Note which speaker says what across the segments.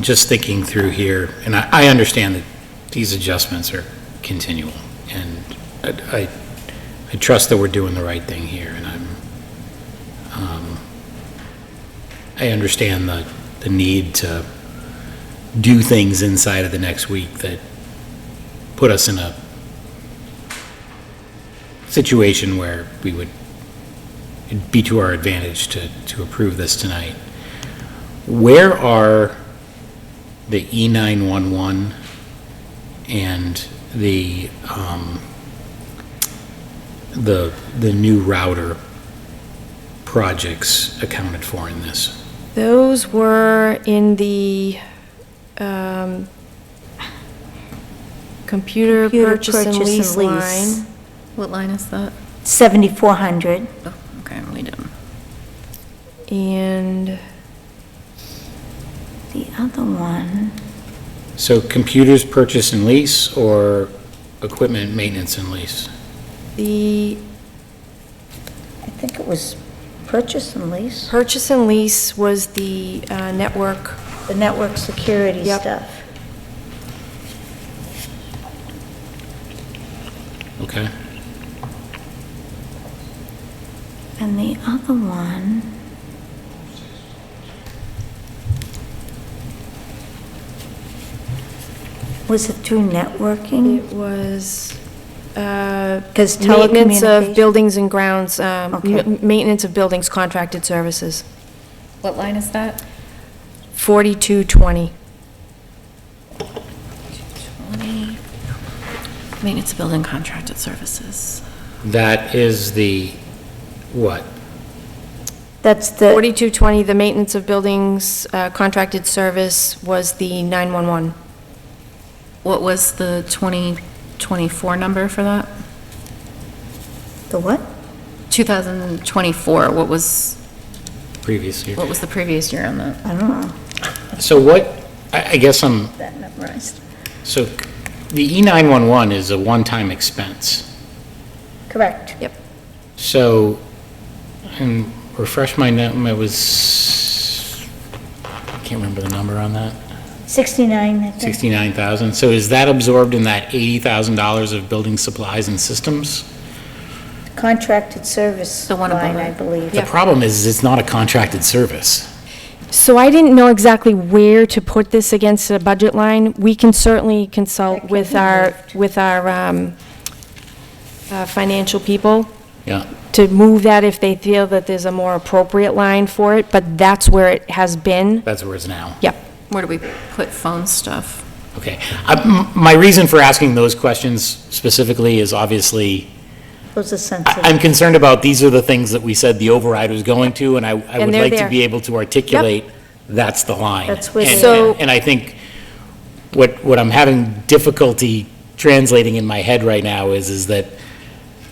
Speaker 1: just thinking through here, and I, I understand that these adjustments are continual, and I, I- I trust that we're doing the right thing here, and I'm, um, I understand the, the need to do things inside of the next week that put us in a situation where we would, it'd be to our advantage to, to approve this tonight. Where are the E E911 and the, um, the, the new router projects accounted for in this?
Speaker 2: Those were in the um, computer
Speaker 3: Computer
Speaker 2: purchase and
Speaker 3: purchase
Speaker 2: lease
Speaker 3: and lease.
Speaker 2: line.
Speaker 4: What line is that?
Speaker 3: 7,400.
Speaker 4: Oh, okay, we didn't.
Speaker 2: And
Speaker 3: The other one,
Speaker 1: So computers purchase and lease or equipment maintenance and lease?
Speaker 2: the
Speaker 3: I think it was purchase and lease,
Speaker 2: purchase and lease was the uh, network,
Speaker 3: the network security
Speaker 2: Yep.
Speaker 3: stuff.
Speaker 1: Okay?
Speaker 3: And the other one, was it through
Speaker 2: it
Speaker 3: networking?
Speaker 2: was uh,
Speaker 3: 'Cause
Speaker 2: maintenance
Speaker 3: telecommunication-
Speaker 2: of buildings and grounds, um,
Speaker 3: Okay.
Speaker 2: m- maintenance of buildings contracted services,
Speaker 4: What line is that?
Speaker 2: 4220.
Speaker 4: Twenty. Maintenance of building contracted services.
Speaker 1: That is the, what?
Speaker 3: That's the,
Speaker 2: 4220, the maintenance of buildings uh, contracted service was the 911.
Speaker 4: What was the 2024 number for that?
Speaker 3: the what?
Speaker 4: 2024, what was,
Speaker 1: Previous year.
Speaker 4: what was the previous year on that?
Speaker 3: I don't know,
Speaker 1: So what, I, I guess I'm,
Speaker 3: that memorized.
Speaker 1: so the E E911 is a one-time expense.
Speaker 3: Correct.
Speaker 1: So, and refresh my, num- it was, I can't remember the number on that,
Speaker 3: 69, I think.
Speaker 1: 69,000. So is that absorbed in that $80,000 of building supplies and systems?
Speaker 3: Contracted service
Speaker 4: The one above
Speaker 3: line, I
Speaker 4: it.
Speaker 3: believe.
Speaker 1: The problem is, it's not a contracted service.
Speaker 2: So I didn't know exactly where to put this against a budget line. We can certainly consult
Speaker 3: That can
Speaker 2: with
Speaker 3: be
Speaker 2: our,
Speaker 3: moved.
Speaker 2: with our um, uh, financial people
Speaker 1: Yeah.
Speaker 2: to move that if they feel that there's a more appropriate line for it, but that's where it has been.
Speaker 1: That's where it's now.
Speaker 2: Yep.
Speaker 4: Where do we put phone stuff?
Speaker 1: Okay. I- m- My reason for asking those questions specifically is obviously,
Speaker 3: Those are
Speaker 1: I-
Speaker 3: sensitive.
Speaker 1: I'm concerned about, these are the things that we said the override was going to, and I I would
Speaker 2: they're
Speaker 1: like to
Speaker 2: there.
Speaker 1: be able to articulate, that's the line.
Speaker 3: That's what-
Speaker 1: And-
Speaker 2: So-
Speaker 1: And I think what, what I'm having difficulty translating in my head right now is, is that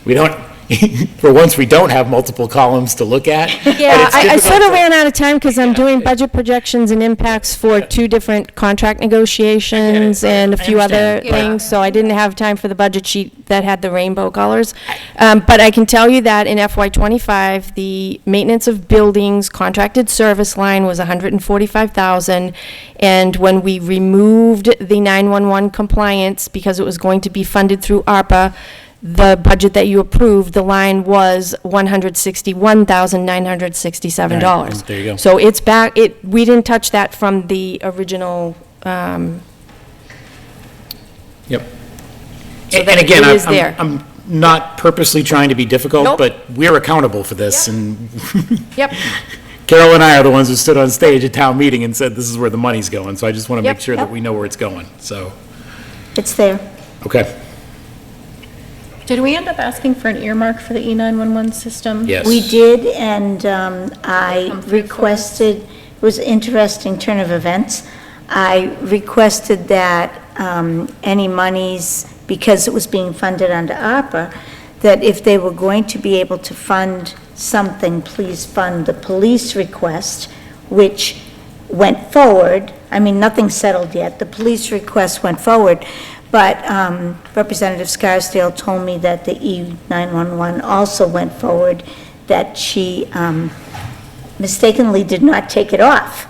Speaker 1: we don't, for once, we don't have multiple columns to look at. but
Speaker 2: Yeah,
Speaker 1: it's
Speaker 2: I, I
Speaker 1: difficult
Speaker 2: sort of
Speaker 1: for-
Speaker 2: ran out of time because I'm doing budget projections and impacts for two different contract negotiations and a
Speaker 1: I
Speaker 2: few other
Speaker 1: understand, but-
Speaker 2: things, so I didn't have time for the budget sheet that had the rainbow colors. Um, but I can tell you that in FY twenty-five, the maintenance of buildings contracted service line was hundred and forty-five thousand. And when we removed the nine-one-one compliance, because it was going to be funded through ARPA, the budget that you approved, the line was one hundred sixty-one thousand nine hundred sixty-seven
Speaker 1: All
Speaker 2: dollars.
Speaker 1: right, there you go.
Speaker 2: So it's back, it, we didn't touch that from the original, um,
Speaker 1: Yep. And and again,
Speaker 2: it
Speaker 1: I'm-
Speaker 2: is there.
Speaker 1: I'm, I'm not purposely trying to be difficult,
Speaker 2: Nope.
Speaker 1: but we're accountable for this, and
Speaker 2: yep,
Speaker 1: Carol and I are the ones who stood on stage at town meeting and said, this is where the money's going, so I just want to make
Speaker 2: Yep.
Speaker 1: sure that
Speaker 3: Yep.
Speaker 1: we know where it's going, so,
Speaker 3: It's there.
Speaker 1: okay,
Speaker 4: Did we end up asking for an earmark for the E E911 system?
Speaker 1: yes.
Speaker 3: We did, and um, I
Speaker 4: Come through for us.
Speaker 3: requested, it was an interesting turn of events. I requested that um, any monies, because it was being funded under ARPA, that if they were going to be able to fund something, please fund the police request, which went forward. I mean, nothing's settled yet. The police request went forward, but um, Representative Scarsdale told me that the E E911 also went forward, that she um, mistakenly did not take it off.